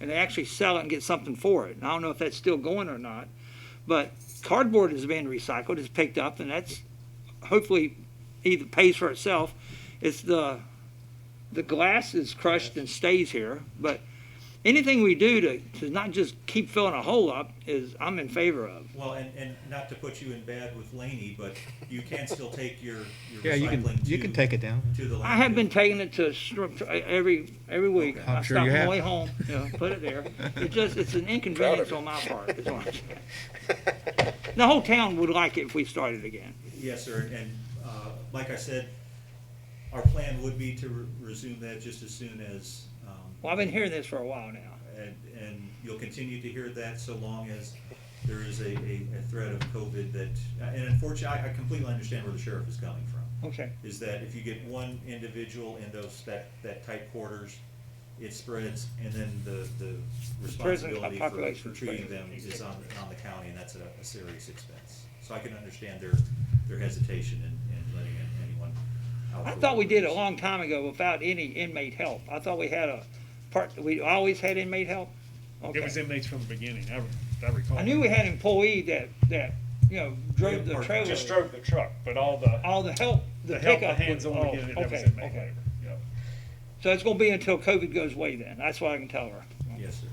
and actually sell it and get something for it. And I don't know if that's still going or not, but cardboard is being recycled, is picked up, and that's hopefully either pays for itself. It's the, the glass is crushed and stays here, but anything we do to, to not just keep filling a hole up is, I'm in favor of. Well, and, and not to put you in bad with Laney, but you can still take your, your Yeah, you can, recycling you to- can take it down. To the landfill. I have been taking it to str- every every week. Okay. I'm I sure stop you on have. the way home, you know, put it there. It just it's an inconvenience on my part. Is what I'm saying. the whole town would like it if we started again. Yes, sir, and, and, uh, like I said, our plan would be to re- resume that just as soon as, um, Well, I've been hearing this for a while now. and, and you'll continue to hear that so long as there is a, a, a threat of COVID that, uh, and unfortunately, I, I completely understand where the sheriff is coming from. Okay. Is that if you get one individual in those, that, that tight quarters, it spreads, and then the, the responsibility for- for population treating spread. them is on, on the county, and that's a, a serious expense. So I can understand their, their hesitation in, in letting anyone out. I for thought we did a whatever long time ago without any inmate help. I thought we had a part. We always had inmate help. It Okay. was inmates from the beginning, I, re- I recall. I knew we had employee that that you know drove the Part- trailer. Just drove the truck, but all the, all the help. The, the help, the pickup hands was, on oh, to get it, that was okay, inmate okay. labor, yeah. So it's going to be until COVID goes away. Then that's what I can tell her. reason. Yes, sir.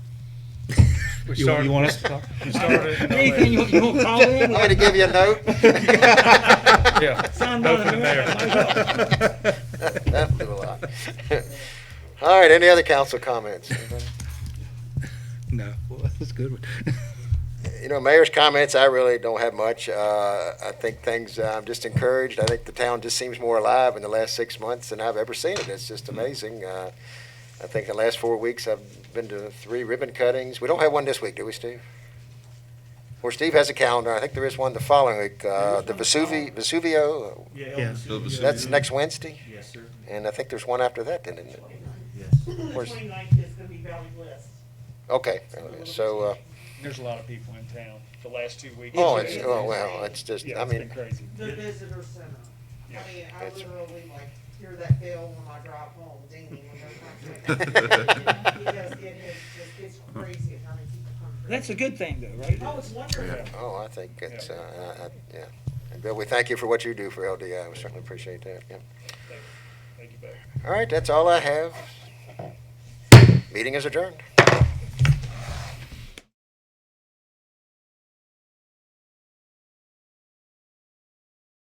We You, you want us to talk? started in Anything you, you want to call in? I'm gonna give you a note. LA. Yeah. Sound Both on of them there. That blew a lot. All right, any other council comments? No, well, that's a good one. You know, mayor's comments, I really don't have much. Uh, I think things, uh, I'm just encouraged. I think the town just seems more alive in the last six months than I've ever seen it. It's just amazing. Uh, I think the last four weeks, I've been to three ribbon cuttings. We don't have one this week, do we, Steve? Or Steve has a calendar. I think there is one the following week, uh, the Vesuvi, Vesuvio, uh, Yeah, Yeah. Elton, you- that's next Wednesday. Yes, sir, And I think there's one after that, then, isn't it? yes. The Where's- 29th is gonna be Valley Blitz. Okay, so, uh, There's a lot of people in town the last two weeks. oh, it's, oh, wow, it's just, Yeah, I it's been mean, crazy. The visitor center. Yeah. I mean, I That's- literally like hear that bell when I drive home, dinging when they're coming. Because it is just, it's crazy how many people come through. That's a good thing, though, right? Oh, it's wonderful. oh, I think it's, uh, I, I, yeah. And Bill, we thank you for what you do for LDI. We certainly appreciate that, yeah. Thank you, Becky. All right, that's all I have. Meeting is adjourned.